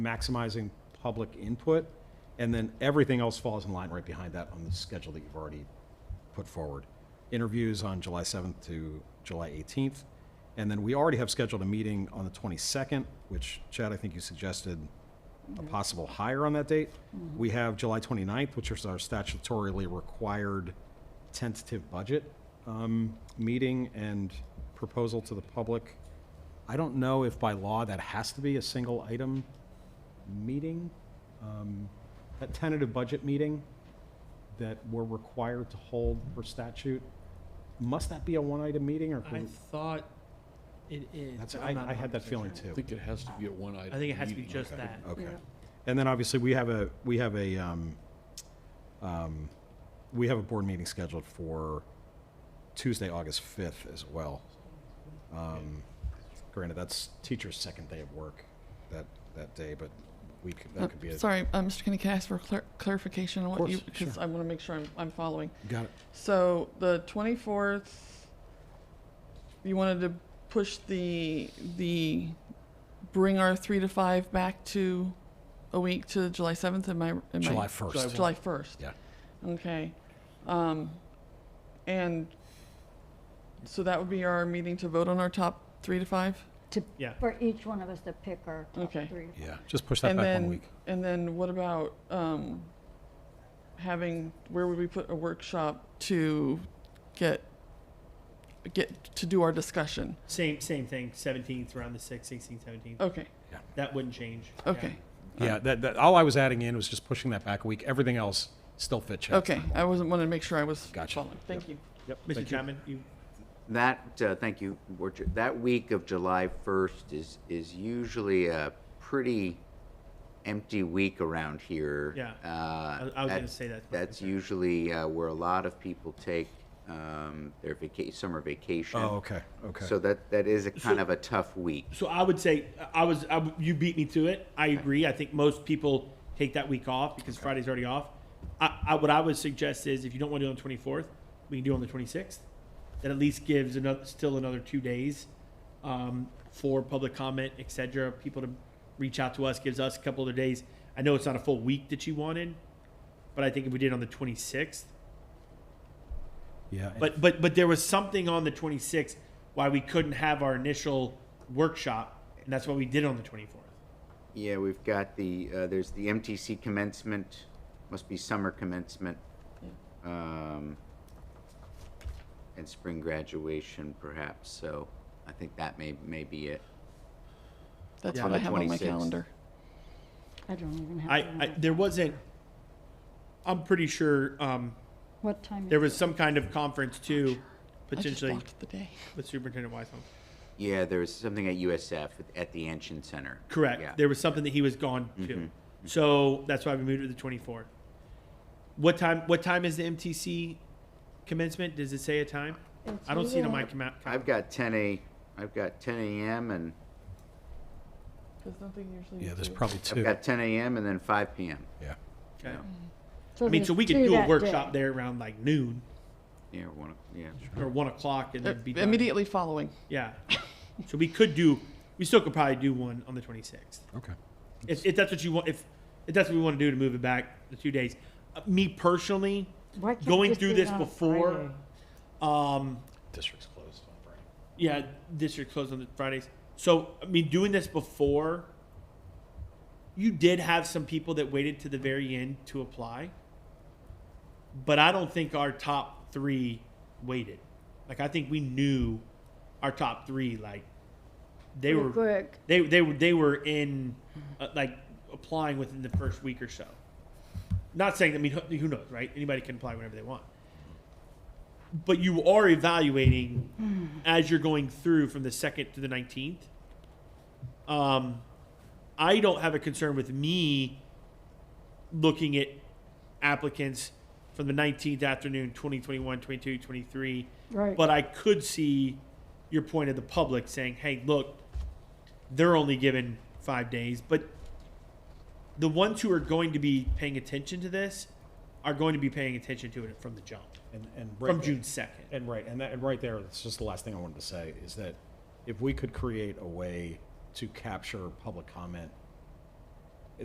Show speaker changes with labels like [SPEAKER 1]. [SPEAKER 1] maximizing public input, and then everything else falls in line right behind that on the schedule that you've already put forward. Interviews on July 7th to July 18th, and then we already have scheduled a meeting on the 22nd, which Chad, I think you suggested a possible hire on that date. We have July 29th, which is our statutorily required tentative budget um, meeting and proposal to the public. I don't know if by law that has to be a single item meeting, um, a tentative budget meeting that we're required to hold per statute. Must that be a one-item meeting or?
[SPEAKER 2] I
[SPEAKER 1] can-
[SPEAKER 2] thought it is.
[SPEAKER 1] That's,
[SPEAKER 2] but
[SPEAKER 1] I,
[SPEAKER 2] I'm not
[SPEAKER 1] I had that
[SPEAKER 2] 100%
[SPEAKER 1] feeling
[SPEAKER 2] sure.
[SPEAKER 1] too.
[SPEAKER 3] I think it has to be a one item.
[SPEAKER 2] I think it has to be just that.
[SPEAKER 1] Okay.
[SPEAKER 4] Yeah.
[SPEAKER 1] And then obviously, we have a, we have a, um, um, we have a board meeting scheduled for Tuesday, August fifth as well. Um, granted, that's teacher's second day of work that, that day, but we could,
[SPEAKER 5] Uh,
[SPEAKER 1] that could be a.
[SPEAKER 5] Sorry, uh, Mr. Kenny, can I ask for clar- clarification on
[SPEAKER 1] Of
[SPEAKER 5] what you,
[SPEAKER 1] course,
[SPEAKER 5] because
[SPEAKER 1] sure.
[SPEAKER 5] I want to make sure I'm, I'm following.
[SPEAKER 1] Got it.
[SPEAKER 5] So the 24th, you wanted to push the, the, bring our three to five back to a week to July 7th, am I, am I?
[SPEAKER 1] July
[SPEAKER 2] July
[SPEAKER 1] first.
[SPEAKER 2] one.
[SPEAKER 5] July 1st?
[SPEAKER 1] Yeah.
[SPEAKER 5] Okay. Um, and so that would be our meeting to vote on our top three to five?
[SPEAKER 4] To,
[SPEAKER 2] Yeah.
[SPEAKER 4] for each one of us to pick our top
[SPEAKER 5] Okay.
[SPEAKER 4] three.
[SPEAKER 1] Yeah, just push that
[SPEAKER 5] And
[SPEAKER 1] back
[SPEAKER 5] then,
[SPEAKER 1] one week.
[SPEAKER 5] And then what about um, having, where would we put a workshop to get, get, to do our discussion?
[SPEAKER 2] Same, same thing, seventeenth, around the sixth, sixteenth, seventeenth.
[SPEAKER 5] Okay,
[SPEAKER 2] That wouldn't change. Yeah.
[SPEAKER 5] okay,
[SPEAKER 1] Yeah, that, that, all I was adding in was just pushing that back a week. Everything else still fit, Chad.
[SPEAKER 5] okay. I wasn't, wanted to make sure I was
[SPEAKER 1] Gotcha.
[SPEAKER 5] following. Thank you.
[SPEAKER 1] Yep,
[SPEAKER 2] Mr.
[SPEAKER 1] thank you.
[SPEAKER 2] Chapman, you,
[SPEAKER 6] That, uh, thank you, Board Chair. That week of July 1st is, is usually a pretty empty week around here.
[SPEAKER 2] Yeah.
[SPEAKER 6] Uh,
[SPEAKER 2] I- I was gonna
[SPEAKER 6] that-
[SPEAKER 2] say that.
[SPEAKER 6] That's usually uh, where a lot of people take um, their vaca, summer vacation.
[SPEAKER 1] Oh, okay, okay.
[SPEAKER 6] So that, that is a kind of a tough week.
[SPEAKER 2] so I would say, I was, I w you beat me to it. I agree. I think most people take that week off because Friday's already off. I, I, what I would suggest is if you don't want to do it on the twenty-fourth, we can do it on the twenty-sixth. That at least gives another, still another two days, um, for public comment, et cetera, people to reach out to us, gives us a couple other days. I know it's not a full week that you wanted, but I think if we did it on the twenty-sixth,
[SPEAKER 1] Yeah.
[SPEAKER 2] But but but there was something on the 26th why we couldn't have our initial workshop, and that's what we did on the 24th.
[SPEAKER 6] Yeah, we've got the, uh, there's the MTC commencement, must be summer commencement. um, And spring graduation perhaps, so I think that may, may be it.
[SPEAKER 5] That's
[SPEAKER 6] Yeah.
[SPEAKER 5] what I
[SPEAKER 6] On the
[SPEAKER 5] have on my
[SPEAKER 6] 26th.
[SPEAKER 5] calendar.
[SPEAKER 4] I don't even have.
[SPEAKER 2] I,
[SPEAKER 4] to
[SPEAKER 2] I
[SPEAKER 4] remember.
[SPEAKER 2] there wasn't. I'm pretty sure um,
[SPEAKER 4] What time?
[SPEAKER 2] there
[SPEAKER 4] is
[SPEAKER 2] was
[SPEAKER 4] it?
[SPEAKER 2] some kind of conference too,
[SPEAKER 5] I just
[SPEAKER 2] potentially
[SPEAKER 5] blocked the day.
[SPEAKER 2] with Superintendent Weishaupt.
[SPEAKER 6] Yeah, there was something at USF at- at the Anshin Center.
[SPEAKER 2] Correct.
[SPEAKER 6] Yeah.
[SPEAKER 2] There was something that he was gone to, so that's why we moved it to the 24th. What time? What time is the MTC commencement? Does it say a time?
[SPEAKER 4] It's
[SPEAKER 2] I don't see it on my
[SPEAKER 4] here.
[SPEAKER 2] comma-
[SPEAKER 6] I've got ten a, I've got ten AM and,
[SPEAKER 5] There's nothing usually.
[SPEAKER 1] Yeah, there's probably
[SPEAKER 6] I've
[SPEAKER 1] two.
[SPEAKER 6] got ten AM and then five PM.
[SPEAKER 1] Yeah.
[SPEAKER 2] Okay.
[SPEAKER 4] So
[SPEAKER 2] I mean, so
[SPEAKER 4] there's
[SPEAKER 2] we could
[SPEAKER 4] two
[SPEAKER 2] do a
[SPEAKER 4] that
[SPEAKER 2] workshop
[SPEAKER 4] day.
[SPEAKER 2] there around like noon.
[SPEAKER 6] Yeah, one, o- yeah.
[SPEAKER 2] or one o'clock and then be done.
[SPEAKER 5] Uh, Immediately following.
[SPEAKER 2] Yeah. So we could do, we still could probably do one on the twenty sixth.
[SPEAKER 1] Okay.
[SPEAKER 2] If, if that's what you want, if, if that's what we want to do to move it back the two days. Uh, Me personally,
[SPEAKER 4] Why can't it
[SPEAKER 2] going
[SPEAKER 4] just
[SPEAKER 2] through
[SPEAKER 4] be
[SPEAKER 2] this
[SPEAKER 4] on a
[SPEAKER 2] before,
[SPEAKER 4] Friday?
[SPEAKER 2] um,
[SPEAKER 1] District's closed on Friday.
[SPEAKER 2] yeah, this year closed on the Fridays. So I mean, doing this before, you did have some people that waited to the very end to apply, but I don't think our top three waited. Like I think we knew our top three. Like they
[SPEAKER 4] Pretty
[SPEAKER 2] were
[SPEAKER 4] Quick.
[SPEAKER 2] they they were they were in uh, like applying within the first week or so. Not saying I mean who who knows, right? Anybody can apply whenever they want. But you are evaluating as you're going through from the second to the nineteenth. Um, I don't have a concern with me looking at applicants from the 19th afternoon 20 21 22 23
[SPEAKER 4] Right.
[SPEAKER 2] but i could see your point of the public saying hey look they're only given five days, but the ones who are going to be paying attention to this are going to be paying attention to it from the jump,
[SPEAKER 1] And, and. right
[SPEAKER 2] from
[SPEAKER 1] there-
[SPEAKER 2] June second.
[SPEAKER 1] And right, and that, and right there, that's just the last thing I wanted to say, is that if we could create a way to capture public comment